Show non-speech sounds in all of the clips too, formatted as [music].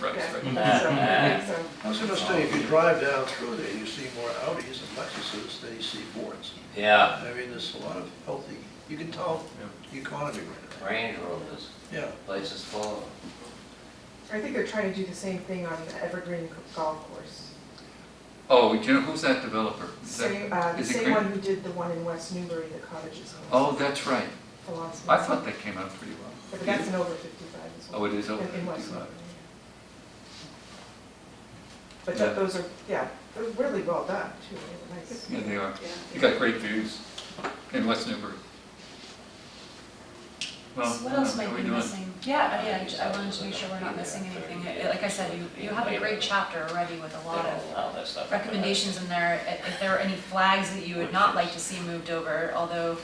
Right, Okay. right. So- so- I was gonna say, if you drive down through there, you see more Audis and Lexuses than you see Fords. Yeah, I mean, there's a lot of healthy, you can tell the economy right now. Range Rovers, Yeah, places full of I think they're trying to do the same thing on the Evergreen Golf Course. Oh, do you know, who's that developer? Is that- Same, uh, the is it same Green- one who did the one in West Newbury, the cottages. homes, Oh, that's right. the lots of I money. thought that came out pretty well. But that's an over fifty-five as well. Oh, it is over in- in West 55. Newbury, yeah. But tho- Yeah. those are, yeah, they're really well done too, They were nice. Yeah, they are. Yeah. You got great views in West Newbury. Well, So What else how might we be doing? missing? Yeah, I- yeah, I ju- I wanted to make sure we're not missing anything. I- Like I said, you, you have a great chapter already with a lot of all that stuff. recommendations in there. If- If there are any flags that you would not like to see moved over, although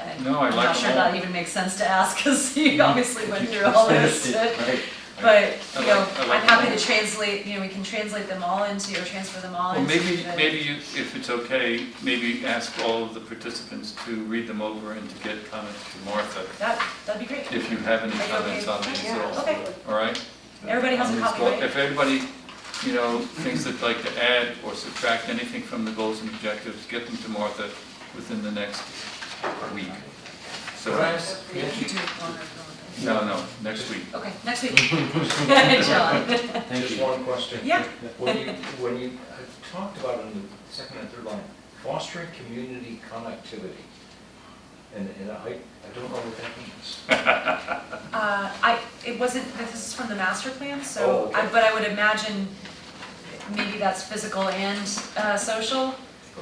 uh, No, I I'm like not sure them all. that even makes sense to ask because [laughs] you obviously [laughs] went through all this. Right. But, I you know, like- I like I'm happy them all. to translate, you know, we can translate them all into, or transfer them all Well, into. maybe, the- maybe you- if it's okay, maybe ask all of the participants to read them over and to get comments to Martha, That, that'd be great. if you have any Are you comments okay? on these at Yeah. all. Okay, All right? everybody has On a these copy, goal- right? If anybody, you know, thinks they'd like to add or subtract anything from the goals and objectives, get them to Martha within the next week. So, You do it longer if you want. no, no, next week. Okay, [laughs] next week. [laughs] John. Just one question. Yeah. When you, when you I talked about in the second and third line, fostering community connectivity. And, and I, I don't know what that means. Uh, I, it wasn't, this is from the master plan, Oh, so, okay. I- but I would imagine maybe that's physical and uh, social.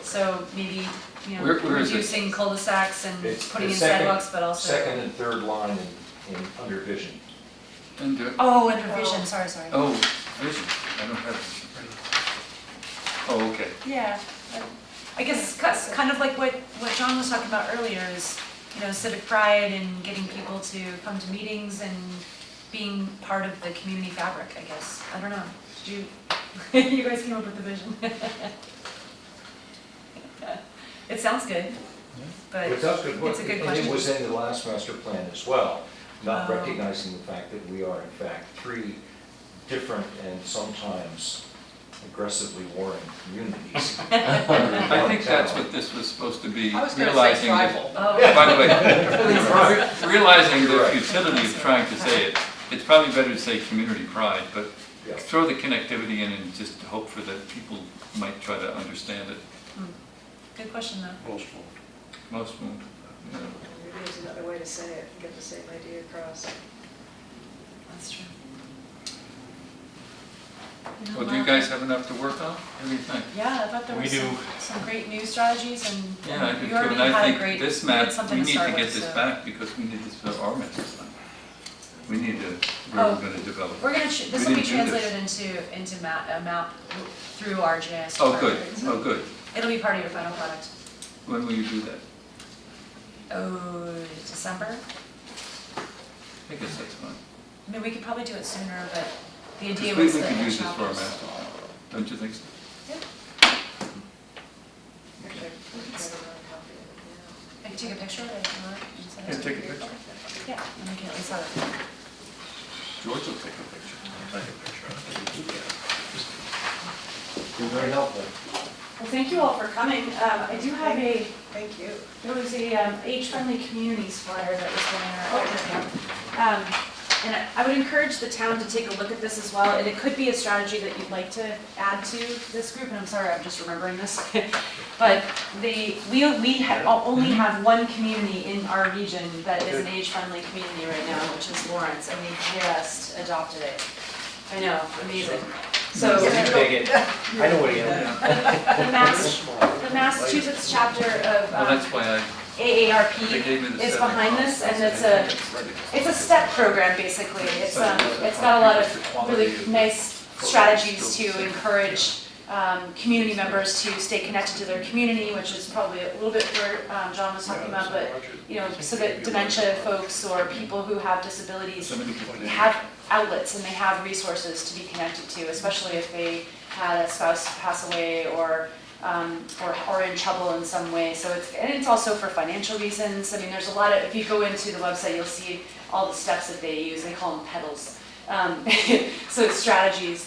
So maybe, you know, Where- where is it? reducing cul-de-sacs and It's putting the in second- sidewalks, but also. Second and third line in, in under vision. And do it. Oh, and revision, sorry, sorry. Oh, vision, I don't have vision. Oh, okay. Yeah, I- I guess it's cuts- kind of like what, what John was talking about earlier is, you know, civic pride and getting people to come to meetings and being part of the community fabric, I guess. I don't know, did you, [laughs] you guys came up with the vision? It sounds good, but It does good work. it's a good And it was question. in the last master plan as well, not Oh. recognizing the fact that we are in fact three different and sometimes aggressively warring [laughs] communities. I think that's what this was supposed to be, I was going to say realizing that. tribal. Oh, By the way, realizing You're the right. futility of trying to say it, it's probably better to say community pride, but Yeah. throw the connectivity in and just hope for that people might try to understand it. good question though. Most won't. you know. Maybe there's another way to say it, and get the same idea across. That's true. Well, do you guys have enough to work on? What do you think? Yeah, I thought there We was do. some, some great new strategies and Yeah, I and do you too, already and I had a think great, this you map, had something we to need to start get with, this so- back because we need this for our master plan. We need to, Oh. we're gonna develop. We're gonna, ch- We this will be didn't do this. translated into, into map, a map through our GIS. Oh, good, department. oh, good. It'll be part of your final product. When will you do that? Oh, December? I guess that's fine. I mean, we could probably do it sooner, but the Because idea we, was we that could the use this for our chapters. master plan, don't you think so? Actually, we can try to run a copy of it now. I could take a picture of it if you want. and send it Yeah, to take a your- picture. Yeah, and we can at least have it. George will take a picture. You're very helpful. Well, thank you all for coming. Um, I do have a, Thank you. there was a um, age-friendly communities flyer that was going around. Um, And I- I would encourage the town to take a look at this as well, and it could be a strategy that you'd like to add to this group, and I'm sorry, I'm just remembering this. [laughs] But the, we, we ha- o- only have one community in our region that is an age-friendly community right now, which is Lawrence, and we just adopted it. I know, amazing. So Take it. I know what you mean. the Mass, the Massachusetts chapter of Well, um, that's why They gave me AARP the is seven behind columns. this, and it's a, it's a step program, basically. It's, um, it's got a lot of really nice strategies to encourage, um, community members to stay connected to their community, which is probably a little bit where, um, John was talking about, but, you know, so that dementia folks or people who have disabilities So many people they have outlets and they have resources to be connected to, especially if they had a spouse pass away or, um, or are in trouble in some way. So it's, and it's also for financial reasons. I mean, there's a lot of, if you go into the website, you'll see all the steps that they use. They call them pedals. Um, [laughs] So it's strategies